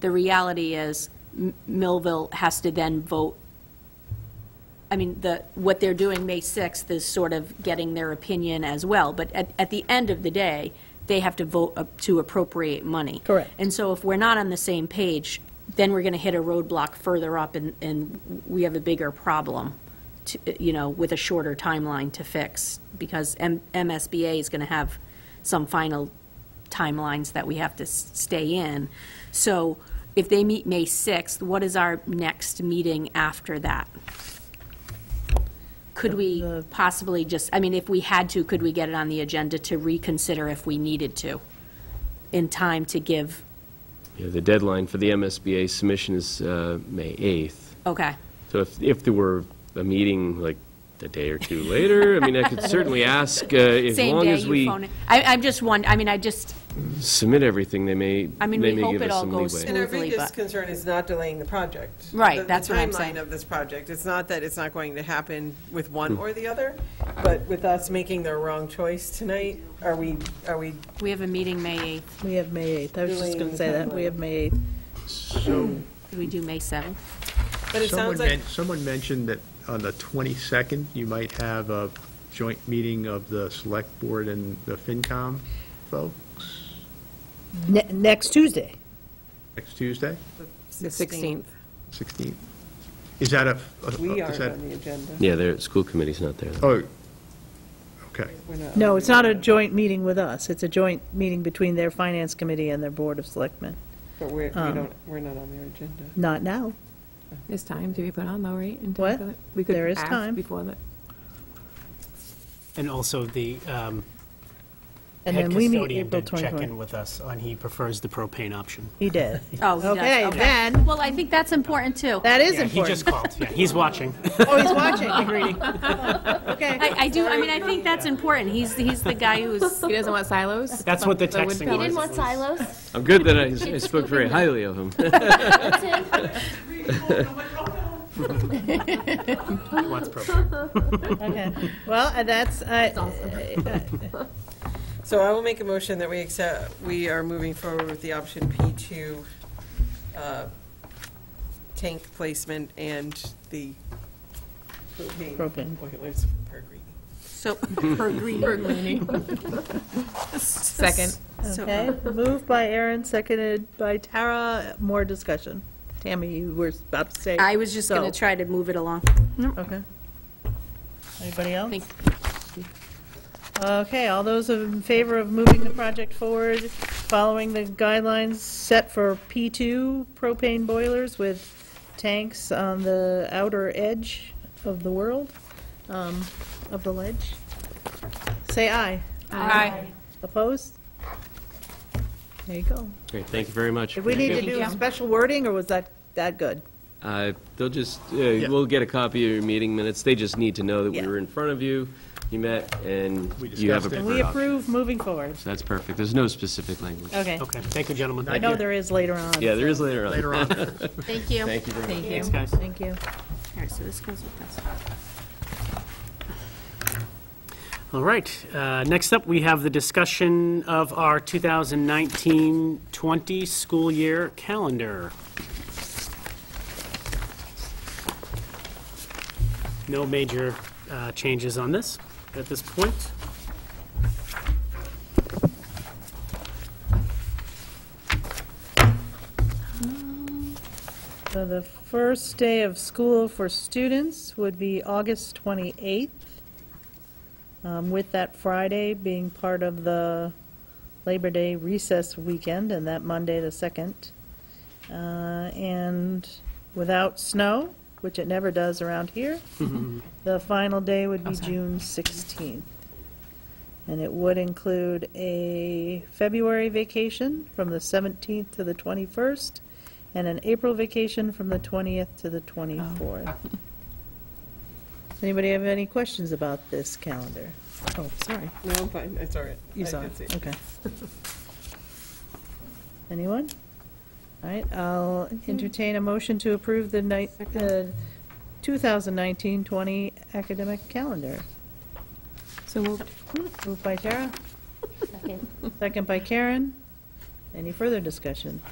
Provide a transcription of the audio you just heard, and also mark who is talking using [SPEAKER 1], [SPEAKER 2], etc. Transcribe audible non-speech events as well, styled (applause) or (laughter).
[SPEAKER 1] the reality is M- Millville has to then vote, I mean, the, what they're doing May 6th is sort of getting their opinion as well, but at, at the end of the day, they have to vote up to appropriate money.
[SPEAKER 2] Correct.
[SPEAKER 1] And so if we're not on the same page, then we're going to hit a roadblock further up, and, and we have a bigger problem, to- you know, with a shorter timeline to fix, because M- MSBA is going to have some final timelines that we have to s- stay in. So if they meet May 6th, what is our next meeting after that? Could we possibly just, I mean, if we had to, could we get it on the agenda to reconsider if we needed to, in time to give,
[SPEAKER 3] Yeah, the deadline for the MSBA submission is uh, May 8th.
[SPEAKER 1] okay,
[SPEAKER 3] So if, if there were a meeting like a day or two later, I mean,
[SPEAKER 1] (laughs)
[SPEAKER 3] I could certainly ask, uh, as
[SPEAKER 1] same
[SPEAKER 3] long
[SPEAKER 1] day
[SPEAKER 3] as
[SPEAKER 1] you
[SPEAKER 3] we
[SPEAKER 1] phone it? I, I'm just one, I mean, I just,
[SPEAKER 3] submit everything, they may,
[SPEAKER 1] I
[SPEAKER 3] they
[SPEAKER 1] mean, we
[SPEAKER 3] may
[SPEAKER 1] hope
[SPEAKER 3] give
[SPEAKER 1] it
[SPEAKER 3] us
[SPEAKER 1] all
[SPEAKER 3] some
[SPEAKER 1] goes
[SPEAKER 3] leeway.
[SPEAKER 1] smooth.
[SPEAKER 4] And our
[SPEAKER 1] smoothly,
[SPEAKER 4] biggest
[SPEAKER 1] but-
[SPEAKER 4] concern is not delaying the project.
[SPEAKER 1] Right,
[SPEAKER 4] The-
[SPEAKER 1] that's what I'm saying.
[SPEAKER 4] The timeline of this project, it's not that it's not going to happen with one or the other, but with us making the wrong choice tonight, are we, are we,
[SPEAKER 1] we have a meeting May 8th,
[SPEAKER 2] We have May 8th. I was just going to say that. We have May 8th.
[SPEAKER 1] could we do May 7th?
[SPEAKER 4] but it
[SPEAKER 5] Someone
[SPEAKER 4] sounds like,
[SPEAKER 5] men- Someone mentioned that on the 22nd, you might have a joint meeting of the Select Board and the FinCom folks
[SPEAKER 2] Ne- Next Tuesday.
[SPEAKER 5] next Tuesday,
[SPEAKER 4] the 16th,
[SPEAKER 5] 16th. Is that a? a-
[SPEAKER 4] we
[SPEAKER 5] Uh,
[SPEAKER 4] aren't
[SPEAKER 5] is that-
[SPEAKER 4] on the agenda.
[SPEAKER 3] Yeah, the school committee's not there. though.
[SPEAKER 5] Oh, okay.
[SPEAKER 4] We're not on
[SPEAKER 2] No,
[SPEAKER 4] the
[SPEAKER 2] it's not a
[SPEAKER 4] agenda,
[SPEAKER 2] joint meeting with us. It's a joint meeting between their Finance Committee and their Board of Selectmen.
[SPEAKER 4] But we're, we
[SPEAKER 2] um,
[SPEAKER 4] don't, we're not on their agenda.
[SPEAKER 2] Not now.
[SPEAKER 6] There's time to be put on though, right? In time
[SPEAKER 2] What?
[SPEAKER 6] for that? We could
[SPEAKER 2] There is
[SPEAKER 6] ask
[SPEAKER 2] time.
[SPEAKER 6] Before that.
[SPEAKER 7] And also the um,
[SPEAKER 2] And
[SPEAKER 7] head
[SPEAKER 2] then we meet
[SPEAKER 7] custodian
[SPEAKER 2] April
[SPEAKER 7] did check
[SPEAKER 2] 24th.
[SPEAKER 7] in with us on he prefers the propane option.
[SPEAKER 2] He
[SPEAKER 7] (laughs)
[SPEAKER 2] did.
[SPEAKER 1] Oh, he does,
[SPEAKER 2] Okay,
[SPEAKER 1] okay.
[SPEAKER 2] then.
[SPEAKER 1] Well, I think that's important, too.
[SPEAKER 2] That is
[SPEAKER 7] Yeah, he
[SPEAKER 2] important.
[SPEAKER 7] just called, yeah, he's watching.
[SPEAKER 2] (laughs) Oh, he's
[SPEAKER 7] (laughs)
[SPEAKER 2] watching. Okay.
[SPEAKER 1] I, I do, I mean, I think that's important, he's, he's the guy
[SPEAKER 2] (laughs)
[SPEAKER 1] who's,
[SPEAKER 6] He doesn't want silos?
[SPEAKER 7] That's what the
[SPEAKER 6] The wood
[SPEAKER 7] texting
[SPEAKER 6] pellets.
[SPEAKER 8] He
[SPEAKER 7] was.
[SPEAKER 8] didn't want silos.
[SPEAKER 3] I'm
[SPEAKER 1] (laughs)
[SPEAKER 3] good that I I spoke very highly of him.
[SPEAKER 8] That's him.
[SPEAKER 7] He wants propane.
[SPEAKER 8] (laughs)
[SPEAKER 2] Okay. Well, uh, that's, uh,
[SPEAKER 4] So I will make a motion that we accept, we are moving forward with the option P2 uh, tank placement and the
[SPEAKER 7] (laughs)
[SPEAKER 4] propane
[SPEAKER 2] Propane.
[SPEAKER 4] boilers per green.
[SPEAKER 1] so, per green.
[SPEAKER 6] Second.
[SPEAKER 2] okay.
[SPEAKER 7] uh,
[SPEAKER 2] Moved by Aaron, seconded by Tara. More discussion. Tammy, you were about to say.
[SPEAKER 1] I was just going to
[SPEAKER 2] so.
[SPEAKER 1] try to move it along.
[SPEAKER 2] Okay. Anybody else?
[SPEAKER 1] Think-
[SPEAKER 2] Okay, all those in favor of moving the project forward, following the guidelines set for P2 propane boilers with tanks on the outer edge of the world, um, of the ledge? Say aye. Opposed? There you go.
[SPEAKER 3] (laughs) Great, thank you very much.
[SPEAKER 2] Did we need to do
[SPEAKER 6] you.
[SPEAKER 2] special wording, or was that, that good?
[SPEAKER 3] Uh, They'll just, uh, we'll get a copy of your meeting minutes, they just need to know that we
[SPEAKER 2] Yeah.
[SPEAKER 3] were in front of you, you met, and
[SPEAKER 5] We
[SPEAKER 3] you have a
[SPEAKER 5] discussed it.
[SPEAKER 2] And
[SPEAKER 3] preferred
[SPEAKER 5] And
[SPEAKER 2] we
[SPEAKER 3] option.
[SPEAKER 2] approve moving forward.
[SPEAKER 3] That's perfect, there's no specific language.
[SPEAKER 2] Okay.
[SPEAKER 7] Okay, thank you, gentlemen.
[SPEAKER 2] I know there is later on.
[SPEAKER 3] Yeah, there is later on.
[SPEAKER 5] Later on.
[SPEAKER 1] Thank you.
[SPEAKER 3] Thank you very much.
[SPEAKER 7] Thanks, guys.
[SPEAKER 2] Thank you.
[SPEAKER 1] All right, so this goes with this.
[SPEAKER 7] All right, uh, next up, we have the discussion of our 2019-20 school year calendar. No major uh, changes on this at this point.
[SPEAKER 2] So the first day of school for students would be August 28th, um, with that Friday being part of the Labor Day recess weekend, and that Monday, the 2nd. Uh, And without snow, which it never does around here, the final day would be June 16th. And it would include a February vacation from the 17th to the 21st, and an April vacation from the 20th to the 24th.
[SPEAKER 4] Oh.
[SPEAKER 2] (laughs) Anybody have any questions about this calendar? Oh, sorry,
[SPEAKER 4] No, I'm fine, it's all right.
[SPEAKER 2] you
[SPEAKER 4] I
[SPEAKER 2] saw
[SPEAKER 4] can
[SPEAKER 2] it,
[SPEAKER 4] see (laughs)
[SPEAKER 2] okay. Anyone? All right, I'll entertain a motion to approve the ni- the 2019-20 academic calendar.
[SPEAKER 6] So moved.
[SPEAKER 2] Moved by Tara,
[SPEAKER 8] Second.
[SPEAKER 2] second by Karen. Any further discussion?